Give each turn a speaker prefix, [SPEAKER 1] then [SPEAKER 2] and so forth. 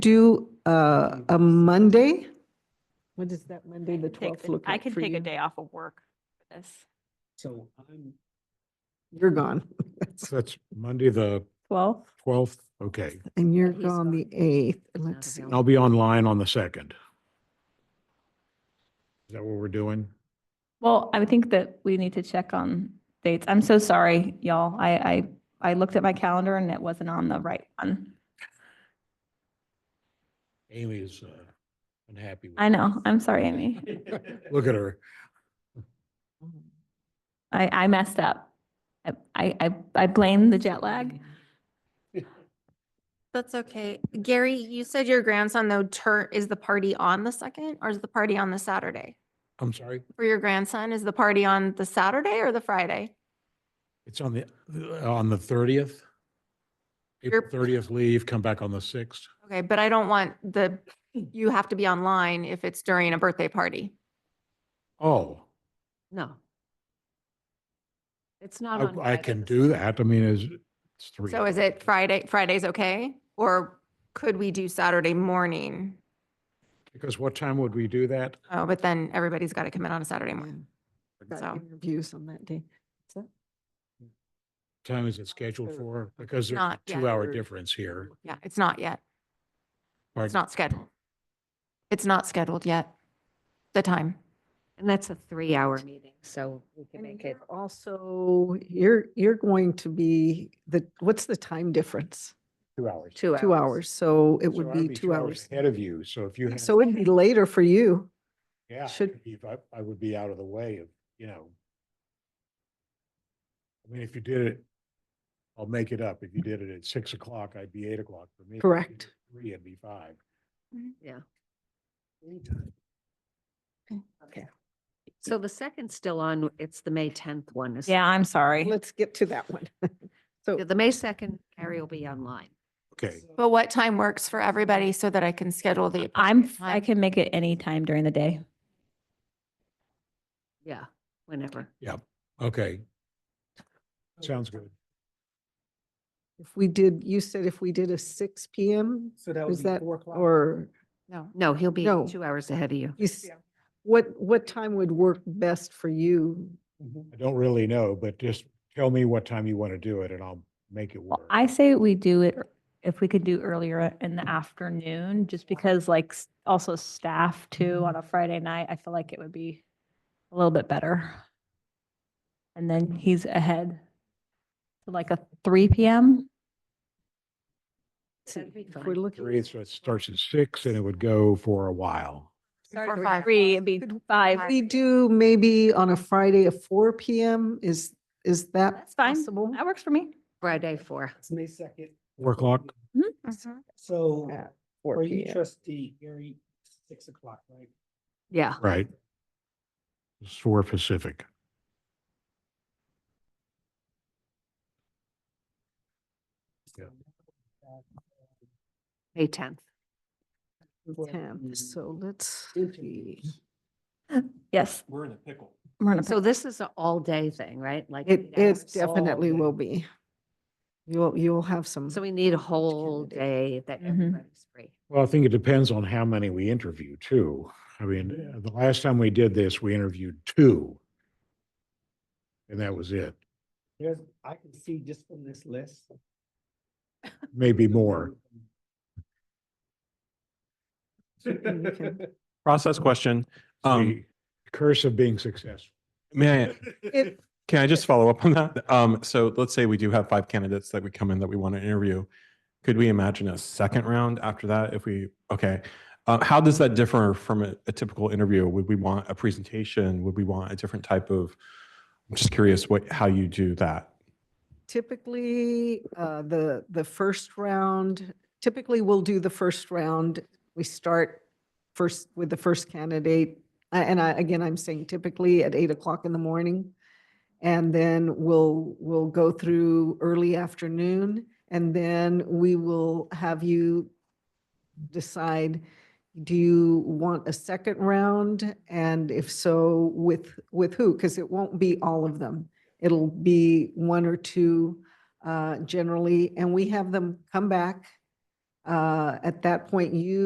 [SPEAKER 1] do uh, a Monday? What is that Monday, the
[SPEAKER 2] take
[SPEAKER 1] 12th
[SPEAKER 2] the-
[SPEAKER 1] look
[SPEAKER 2] I
[SPEAKER 1] like
[SPEAKER 2] can
[SPEAKER 1] for
[SPEAKER 2] take a
[SPEAKER 1] you?
[SPEAKER 2] day off of work for this.
[SPEAKER 3] So I'm,
[SPEAKER 1] You're gone
[SPEAKER 4] So That's Monday, the
[SPEAKER 2] Twelve?
[SPEAKER 4] twelfth, okay.
[SPEAKER 1] and you're
[SPEAKER 2] he's
[SPEAKER 1] gone
[SPEAKER 2] gone.
[SPEAKER 1] the 8th.
[SPEAKER 2] It's not
[SPEAKER 1] Let's see.
[SPEAKER 2] available.
[SPEAKER 4] I'll be online on the second. Is that what we're doing?
[SPEAKER 5] Well, I would think that we need to check on dates. I'm so sorry, y'all. I, I, I looked at my calendar and it wasn't on the right one.
[SPEAKER 4] Amy is uh, unhappy. with
[SPEAKER 5] I
[SPEAKER 4] it.
[SPEAKER 5] know. I'm sorry, Amy.
[SPEAKER 4] Look at her.
[SPEAKER 5] I, I messed up. I, I, I- I blame the jet lag.
[SPEAKER 6] That's okay. Gary, you said your grandson though, tur, is the party on the second or is the party on the Saturday?
[SPEAKER 4] I'm sorry.
[SPEAKER 6] For your grandson, is the party on the Saturday or the Friday?
[SPEAKER 4] It's on the, uh, on the thirtieth. April
[SPEAKER 6] You're-
[SPEAKER 4] thirtieth leave, come back on the sixth.
[SPEAKER 6] Okay, but I don't want the, you have to be online if it's during a birthday party.
[SPEAKER 4] Oh,
[SPEAKER 2] No. It's not on.
[SPEAKER 4] I I can do that. I mean, is. it's three
[SPEAKER 6] So
[SPEAKER 4] hours.
[SPEAKER 6] is it Friday, Friday's okay? Or could we do Saturday morning?
[SPEAKER 4] Because what time would we do that?
[SPEAKER 6] Oh, but then everybody's got to commit on a Saturday morning.
[SPEAKER 1] Got
[SPEAKER 6] So-
[SPEAKER 1] interviews on that day. So-
[SPEAKER 4] Time is it scheduled for? Because there's a
[SPEAKER 6] Not yet.
[SPEAKER 4] two-hour difference here.
[SPEAKER 6] Yeah, it's not yet. It's
[SPEAKER 4] Pardon?
[SPEAKER 6] not scheduled. It's not scheduled yet. The time.
[SPEAKER 2] And that's a three-hour meeting, so we can
[SPEAKER 1] And
[SPEAKER 2] make it.
[SPEAKER 1] you're Also, you're, you're going to be, the, what's the time difference?
[SPEAKER 4] Two hours.
[SPEAKER 2] Two
[SPEAKER 1] Two hours, so it would
[SPEAKER 4] So I'd
[SPEAKER 1] be two hours.
[SPEAKER 4] Ahead of you, so if you. had-
[SPEAKER 1] So it'd be later for you.
[SPEAKER 4] Yeah,
[SPEAKER 1] should-
[SPEAKER 4] if I, I would be out of the way of, you know. I mean, if you did it, I'll make it up. If you did it at six o'clock, I'd be eight o'clock for me. If you did it
[SPEAKER 1] Correct.
[SPEAKER 4] at Three, it'd be five.
[SPEAKER 2] So the second's still on, it's the May tenth one. is-
[SPEAKER 5] Yeah, I'm sorry.
[SPEAKER 1] Let's get to that one. So
[SPEAKER 2] Yeah, The May second, Carrie will be online.
[SPEAKER 4] Okay,
[SPEAKER 6] But what time works for everybody so that I can schedule the?
[SPEAKER 5] I'm,
[SPEAKER 6] appropriate
[SPEAKER 5] I
[SPEAKER 6] time?
[SPEAKER 5] can make it any time during the day.
[SPEAKER 2] Yeah, whenever.
[SPEAKER 4] okay. Sounds good.
[SPEAKER 1] if we did, you said if we did a six PM,
[SPEAKER 3] so that
[SPEAKER 1] Is
[SPEAKER 3] was
[SPEAKER 1] that-
[SPEAKER 3] at four o'clock.
[SPEAKER 1] or
[SPEAKER 6] No,
[SPEAKER 2] No, he'll be
[SPEAKER 1] No.
[SPEAKER 2] two hours ahead of you.
[SPEAKER 1] you s- what, what time would work best for you?
[SPEAKER 4] I don't really know, but just tell me what time you want to do it and I'll make it
[SPEAKER 5] Well,
[SPEAKER 4] work.
[SPEAKER 5] I say we do it, if we could do earlier in the afternoon, just because like s- also staff
[SPEAKER 3] Mm-hmm.
[SPEAKER 5] too on a Friday night, I feel like it would be a little bit better. And then he's ahead to like a three PM.
[SPEAKER 1] If
[SPEAKER 2] be
[SPEAKER 1] we're
[SPEAKER 2] fine.
[SPEAKER 1] looking,
[SPEAKER 4] Three, so it starts at six and it would go for a while.
[SPEAKER 6] Started with five.
[SPEAKER 5] Three, it'd be
[SPEAKER 1] if
[SPEAKER 5] five.
[SPEAKER 1] we do maybe on a Friday at four PM, is, is that
[SPEAKER 5] That's fine.
[SPEAKER 1] possible?
[SPEAKER 5] That works for me.
[SPEAKER 2] Friday four.
[SPEAKER 3] It's May second.
[SPEAKER 4] Four o'clock?
[SPEAKER 6] Mhm.
[SPEAKER 3] So
[SPEAKER 1] At
[SPEAKER 3] for
[SPEAKER 1] Four
[SPEAKER 3] you
[SPEAKER 1] PM.
[SPEAKER 3] trustee, Gary, six o'clock, right?
[SPEAKER 2] Yeah,
[SPEAKER 4] Right. It's four Pacific. Yeah.
[SPEAKER 2] May tenth.
[SPEAKER 1] Ten. So let's
[SPEAKER 3] Into-
[SPEAKER 1] see.
[SPEAKER 5] Yes,
[SPEAKER 3] We're in a pickle.
[SPEAKER 5] we're on a,
[SPEAKER 2] So this is an all-day thing, right? Like.
[SPEAKER 1] It,
[SPEAKER 2] eight
[SPEAKER 1] it
[SPEAKER 2] hours.
[SPEAKER 1] definitely
[SPEAKER 3] day.
[SPEAKER 1] will be. You'll, you'll have some.
[SPEAKER 2] So we need a whole day that
[SPEAKER 5] Mhm.
[SPEAKER 2] everybody's free.
[SPEAKER 4] Well, I think it depends on how many we interview too. I mean, uh, the last time we did this, we interviewed two. And that was it,
[SPEAKER 3] There's, I can see just from this list.
[SPEAKER 4] maybe more.
[SPEAKER 7] Process question. Um,
[SPEAKER 4] The Curse of being successful.
[SPEAKER 7] may I,
[SPEAKER 1] It-
[SPEAKER 7] can I just follow up on that? Um, so let's say we do have five candidates that we come in that we want to interview. Could we imagine a second round after that if we, okay. Uh, how does that differ from a, a typical interview? Would we want a presentation? Would we want a different type of? I'm just curious what, how you do that.
[SPEAKER 1] Typically, uh, the, the first round, typically we'll do the first round. We start first with the first candidate. a- And I, again, I'm saying typically at eight o'clock in the morning. And then we'll, we'll go through early afternoon and then we will have you decide, do you want a second round? And if so, with, with who? Because it won't be all of them. It'll be one or two uh, generally, and we have them come back Uh, At that point, you